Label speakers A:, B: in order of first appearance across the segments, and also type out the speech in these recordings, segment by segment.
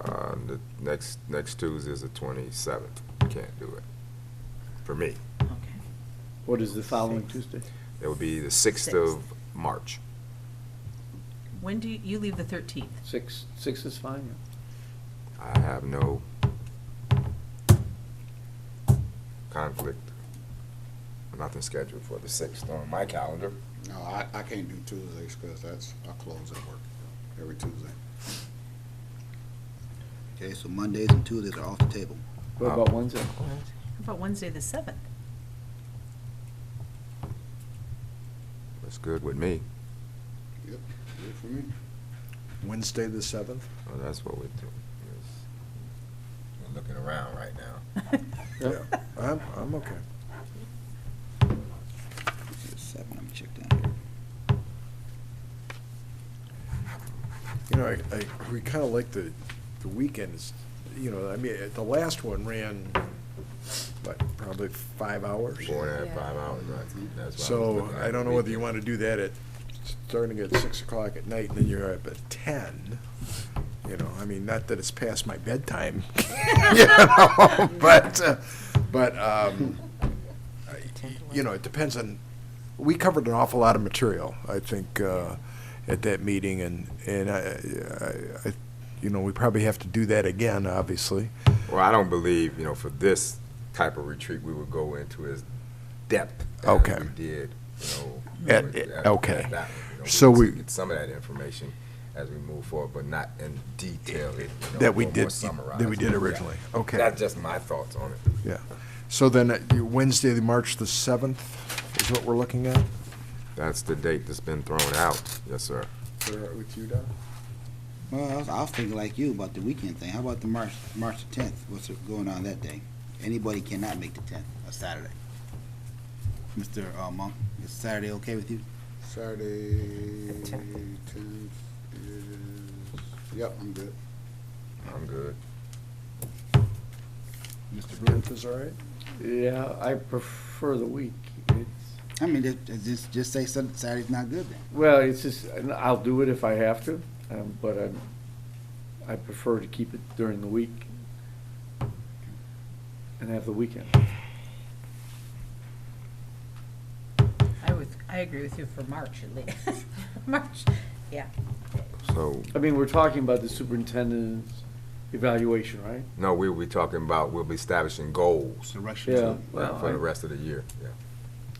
A: Uh, the next, next Tuesday is the twenty-seventh. Can't do it. For me.
B: Okay.
C: What is the following Tuesday?
A: It would be the sixth of March.
B: When do you, you leave the 13th?
C: Six, six is fine, yeah.
A: I have no conflict. Nothing scheduled for the sixth on my calendar.
D: No, I, I can't do Tuesdays because that's, I close at work every Tuesday.
E: Okay, so Mondays and Tuesdays are off the table.
C: What about Wednesday?
B: How about Wednesday, the 7th?
A: That's good with me.
D: Yep, good for me.
F: Wednesday, the seventh?
A: Well, that's what we do. Yes. We're looking around right now.
C: Yeah.
F: I'm, I'm okay.
E: It's Seven, let me check down here.
F: You know, I, I, we kinda like the, the weekends, you know, I mean, the last one ran, what, probably five hours?
A: Four and a
G: Yeah.
A: half, five hours, right? That's why I was
F: So
A: looking at
F: I don't know
A: the
F: whether you
A: weekend.
F: wanna do that at, starting at six o'clock at night and then you're up at ten. You know, I mean, not that it's past my bedtime, you know, but, uh, but, um, I- you know, it depends on, we covered an awful lot of material, I think, uh, at that meeting and, and I, I, I, you know, we probably have to do that again, obviously.
A: Well, I don't believe, you know, for this type of retreat, we would go into as depth as
F: Okay.
A: we did, you know.
F: At-
A: with-
F: at-
A: at- at
F: okay.
A: that one, you know,
F: So
A: could
F: we-
A: Get some of that information as we move forward, but not in detail. it, you know,
F: That we
A: a little
F: did-
A: more summarized.
F: that we did
A: Yeah.
F: originally. Okay.
A: That's just my thoughts on it.
F: Yeah. So then uh, Wednesday, the March the seventh is what we're looking at?
A: That's the date that's been thrown out. Yes, sir. uh,
F: With you, Don?
E: Well, I was, I was thinking like you about the weekend thing. How about the March, March the tenth? What's going on that day? Anybody cannot make the tenth, a Saturday. Mr. uh, Monk, is Saturday okay with you?
D: Saturday,
B: The tenth.
D: tenth is, yep, I'm good.
A: I'm good.
E: Mr. Brewer?
F: Tenth is all right?
C: Yeah, I prefer the week. It's,
E: I mean, just- just, just say Sun- Saturday's not good then.
C: well, it's just, and I'll do it if I have to, um, but I'm, I prefer to keep it during the week and have the weekend.
B: I would, I agree with you for March at least. March, yeah.
A: So,
C: I mean, we're talking about the superintendent's evaluation, right?
A: no, we'll be talking about, we'll be establishing goals
E: So Russia.
C: Yeah, well,
A: for the
C: I-
A: rest of the year. Yeah.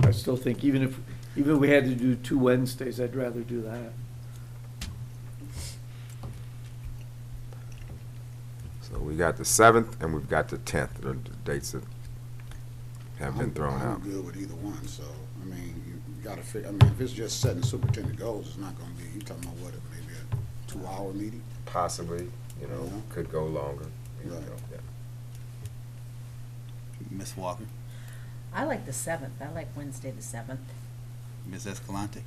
C: I still think even if, even if we had to do two Wednesdays, I'd rather do that.
A: So we got the seventh and we've got the tenth, the dates that have been
D: I'm-
A: thrown out.
D: I'm good with either one, so, I mean, you you gotta figure, I mean, if it's just setting superintendent goals, it's not gonna be, you talking about what, maybe a two-hour meeting?
A: Possibly, you know,
D: Yeah.
A: could go longer. you
D: Right.
A: know, yeah.
E: Miss Walker,
B: I like the 7th. I like Wednesday, the 7th.
E: Miss Escalante.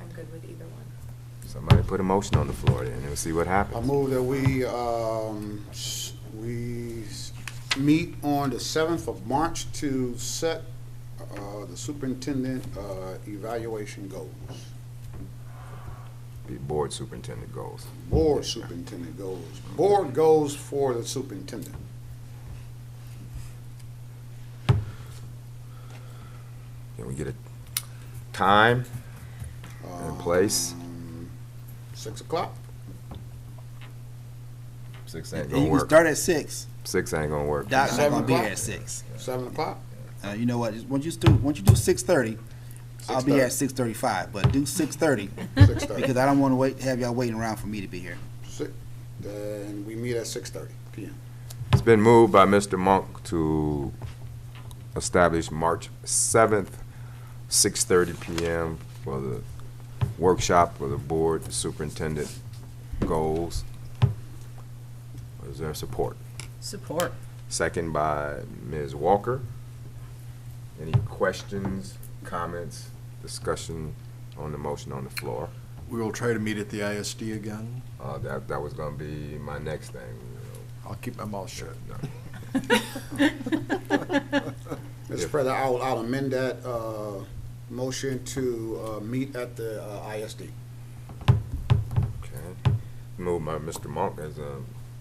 G: I'm good with either one.
A: Somebody put a motion on the floor then and see what
D: I
A: happens.
D: move that we, um, s- we s- meet on the seventh of March to set, uh, the superintendent, uh, evaluation goals.
A: The board superintendent goals.
D: Board superintendent goals, board goals for the superintendent.
A: Can we get a time? In place.
E: Uh,
D: Um, Six o'clock?
A: Six ain't
E: And
A: gonna
E: you can
A: work.
E: start at six.
A: Six ain't gonna work.
E: Doc's not
D: Seven
E: gonna be
D: o'clock?
E: here at six.
D: Seven o'clock?
E: Uh, you know what, just- once you do, once you do six thirty, I'll be
D: 6:30.
E: here at six thirty-five, but do six thirty,
D: Six
E: because
D: thirty.
E: I don't wanna wait, have y'all waiting around for me to be here.
D: Six- Then we meet at six thirty PM.
A: It's been moved by Mr. Monk to establish March seventh, six thirty PM for the workshop for the board superintendent goals. Is there support?
B: Support.
A: Second by Ms. Walker. Any questions, comments, discussion on the motion on the floor?
F: We will try to meet at the ISD again.
A: Uh, that, that was gonna be my next thing, you
F: I'll keep my mouth shut.
A: know.
D: Mr. President, I'll, I'll amend that, uh, motion to, uh, meet at the uh, ISD.
A: Okay. Moved by Mr. Monk as a